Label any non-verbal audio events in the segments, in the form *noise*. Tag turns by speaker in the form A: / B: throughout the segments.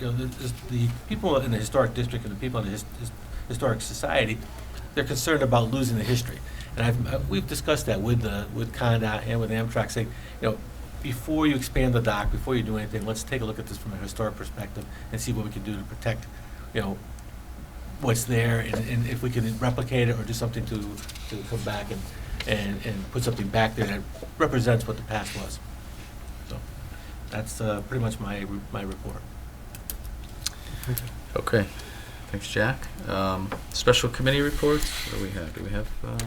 A: you know, the, is the people in the historic district and the people in the his, his- historic society, they're concerned about losing the history. And I've, uh, we've discussed that with the, with Condot and with Amtrak, saying, you know, before you expand the dock, before you do anything, let's take a look at this from a historic perspective and see what we can do to protect, you know, what's there and, and if we can replicate it or do something to, to come back and, and, and put something back there that represents what the past was. So, that's, uh, pretty much my, re- my report.
B: Okay, thanks, Jack. Um, Special committee reports, what do we have? Do we have, uh,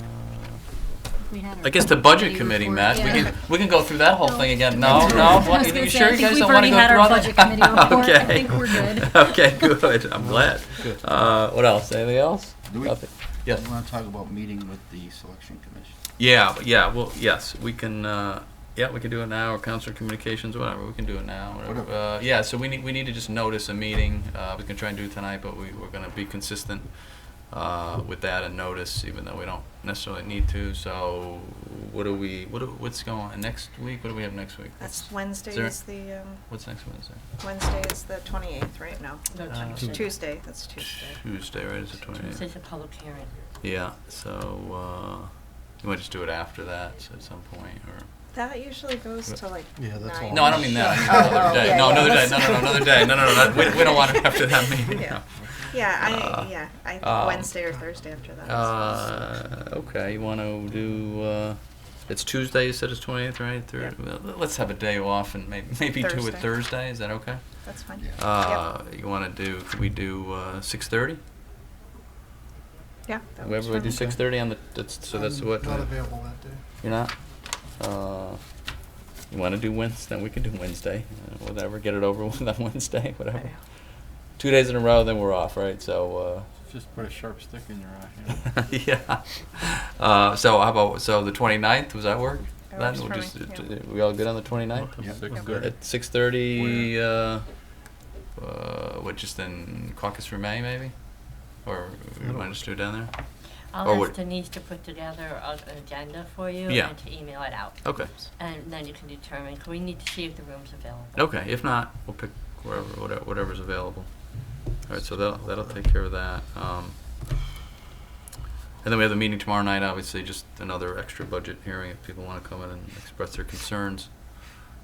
C: We had our
B: I guess the budget
C: committee
B: committee,
C: report.
B: Matt, we
C: Yeah.
B: can, we can go through that whole
C: No.
B: thing again. No,
C: I
B: no,
C: was
B: what,
C: gonna
B: you
C: say,
B: sure
C: I
B: you
C: think
B: guys
C: we've
B: don't want to
C: already
B: go
C: had
B: through
C: our
B: all *laughs*
C: budget committee
B: that?
C: report. I
B: Okay.
C: think we're good.
B: *laughs* Okay, good, I'm glad. Uh, What else, anything else?
D: Do we-
B: Nothing. Yes.
D: We want to talk about meeting with the selection commission.
B: Yeah, yeah, well, yes, we can, uh, yeah, we can do it now, or council communications, whatever, we can do it now, whatever.
D: Whatever.
B: Uh, yeah, so we need, we need to just notice a meeting, uh, we can try and do it tonight, but we, we're gonna be consistent, uh, with that and notice, even though we don't necessarily need to, so what do we, what do, what's going on, next week, what do we have next week?
E: That's
B: What's-
E: Wednesday
B: is there-
E: is the, um,
B: What's next Wednesday?
E: Wednesday is the 28th, right? No.
B: Uh,
E: Tuesday, that's Tuesday.
B: Tuesday, right, is it twenty-eighth?
C: Such a public hearing.
B: Yeah, so, uh, you might just do it after that, so at some point, or?
E: That usually goes to like
F: Yeah, that's
E: nine.
F: all.
B: No, I don't mean that. I mean
E: Oh,
B: another
E: oh,
B: day.
E: yeah,
B: No,
E: yeah,
B: another day.
E: that's-
B: No, no, no, another day. No, no, no. that- We, we don't want it after that meeting.
E: Yeah. Yeah,
B: Uh,
E: I, yeah, I
B: um,
E: think Wednesday or Thursday after that.
B: Uh, okay, you want to do? Uh, it's Tuesday. You said it's twentieth, right? Thir-
E: Yeah.
B: well, Let's have a day off and maybe maybe do it
E: Thursday.
B: Thursday. Is that okay?
E: That's fine.
D: Yeah.
B: Uh, You want to do? Could we do uh, six thirty?
E: Yeah. that works
B: Whoever we
E: for
B: do
E: me.
B: six thirty on the. That's, so that's
F: I'm
B: what.
F: Not
B: uh,
F: available that day.
B: You're not. Uh, you want to do Wednesday? We can do Wednesday. Uh, whatever. Get it over with on Wednesday. *laughs*
E: I
B: Whatever.
E: know.
B: Two days in a row, then we're off, right? So. Uh,
D: Just put a sharp stick in your eye.
B: *laughs* yeah. Uh, so how about so the 29th? Was that work? Then
E: That works
B: we'll
E: for me,
B: just, uh,
E: yeah.
B: t- we all good on the 29th
D: Yeah.
B: at 6:30. Uh, uh, what just in caucus for May maybe, or we might just do it down there. Or
C: I'll
B: what-
C: ask Denise to put together a- an agenda for you
B: Yeah.
C: and to email it out.
B: Okay.
C: And then you can determine, 'cause we need to see if the room's available.
B: Okay. If not, we'll pick wherever whatever, whatever's available. All right. So that'll that'll take care of that. Um, and then we have the meeting tomorrow night. Obviously, just another extra budget hearing. If people want to come in and express their concerns.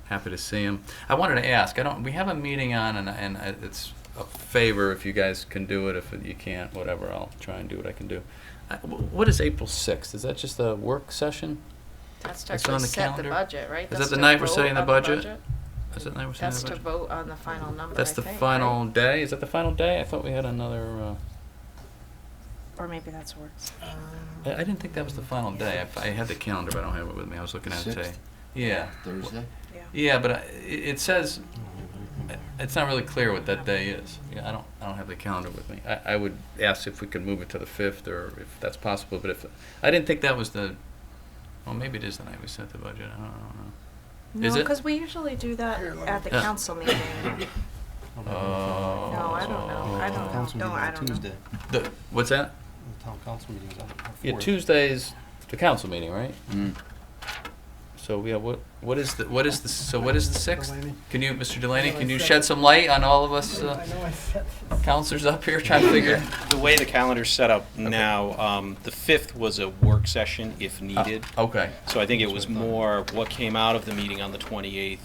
B: Happy to see him. I wanted to ask. I don't. We have a meeting on, and and I- it's a favor if you guys can do it. If you can't, whatever. I'll try and do what I can do. I- wh- What is April sixth? Is that just a work session?
G: That's to
B: It's on
G: actually
B: the
G: set the
B: calendar.
G: budget, right?
B: Is that
G: That's
B: the
G: to
B: night we're
G: vote
B: setting the
G: on
B: budget? Is that the night we're setting
G: That's
B: the
G: to
B: budget?
G: vote on the final number,
B: That's
G: I
B: the
G: think, right?
B: final day. Is that the final day? I thought we had another.
G: Or maybe that's works.
B: Uh, I, I didn't think that was the final day. I, I had the calendar, but I don't have it with me. I was looking at it today.
D: Sixth?
B: Yeah.
D: Thursday?
E: Yeah.
B: Yeah, but I, it it says it's not really clear what that day is. Yeah, I don't. I don't have the calendar with me. I, I would ask if we could move it to the fifth, or if that's possible. But if I didn't think that was the. Well, maybe it is the night we set the budget. I don't, I Is
E: No,
B: it?
E: because we usually do that at the
B: Yeah.
E: council meeting.
B: *laughs* don't know. Oh.
E: No, I don't know. I don't know.
F: Council
E: No,
F: meeting's
E: I
F: on
E: don't know.
F: Tuesday.
B: The, what's that?
F: The town council meeting's on. on
B: Yeah,
F: fourth.
B: Tuesday's the council meeting, right?
D: Mm.
B: So yeah, what what is the what is the so what is the sixth?
F: Delaney.
B: Can you, Mr. Delaney,
F: know
B: can
F: I
B: you
F: said
B: shed
F: it.
B: some light on all of us
F: I
B: uh,
F: know I said this.
B: counselors up here trying to figure?
H: The way the calendar's set up now, um, the 5th was a work session if needed.
B: Okay,
H: So I think it was
D: That's what I thought.
H: more what came out of the meeting on the 28th.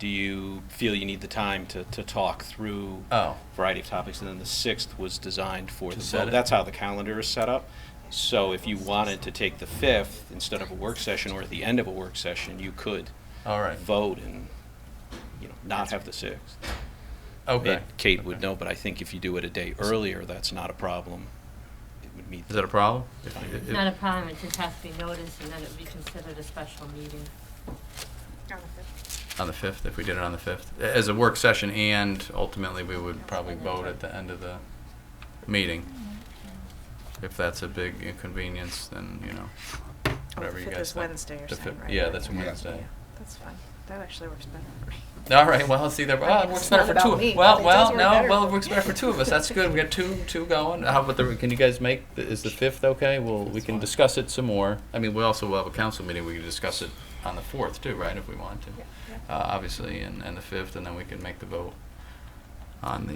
H: Do you feel you need the time to, to talk through
B: oh,
H: variety of topics, and then the sixth was designed for
B: To
H: the
B: set it.
H: vote. That's how the calendar is set up. So if you wanted to take the fifth instead of a work session or at the end of a work session, you could
B: all right,
H: vote and, you know, not have the sixth.
B: okay.
H: And Kate would
B: Okay.
H: know, but I think if you do it a day earlier, that's not a problem. It would meet.
B: Is that a problem?
C: It's not a problem, it just has to be noticed and then it'll be considered a special meeting.
E: On the fifth.
B: On the fifth, if we did it on the fifth, as a work session, and ultimately we would probably vote at the end of the meeting. If that's a big inconvenience, then you know,
E: Oh, the
B: whatever you
E: fifth
B: guys
E: is
B: think.
E: Wednesday or
B: The fifth-
E: something, right?
B: Yeah, that's a
E: Yeah.
B: Wednesday.
E: That's fine. That actually works better for me.
B: All right. Well, see, there. Well, it
E: Right,
B: works
E: it's
B: better
E: not
B: for
E: about
B: two.
E: me,
B: well,
E: but it
B: well,
E: does work
B: no.
E: better
B: Well, it
E: for
B: works
E: me.
B: better for two of us. That's good. We got two, two going. How about the? Can you guys make? the- Is the fifth okay? Well, we can discuss it some more. I mean, we also will have a council meeting. We can discuss it on the fourth too, right? If we want to,
E: Yeah, yeah.
B: uh, obviously, and, and the fifth, and then we can make the vote on the.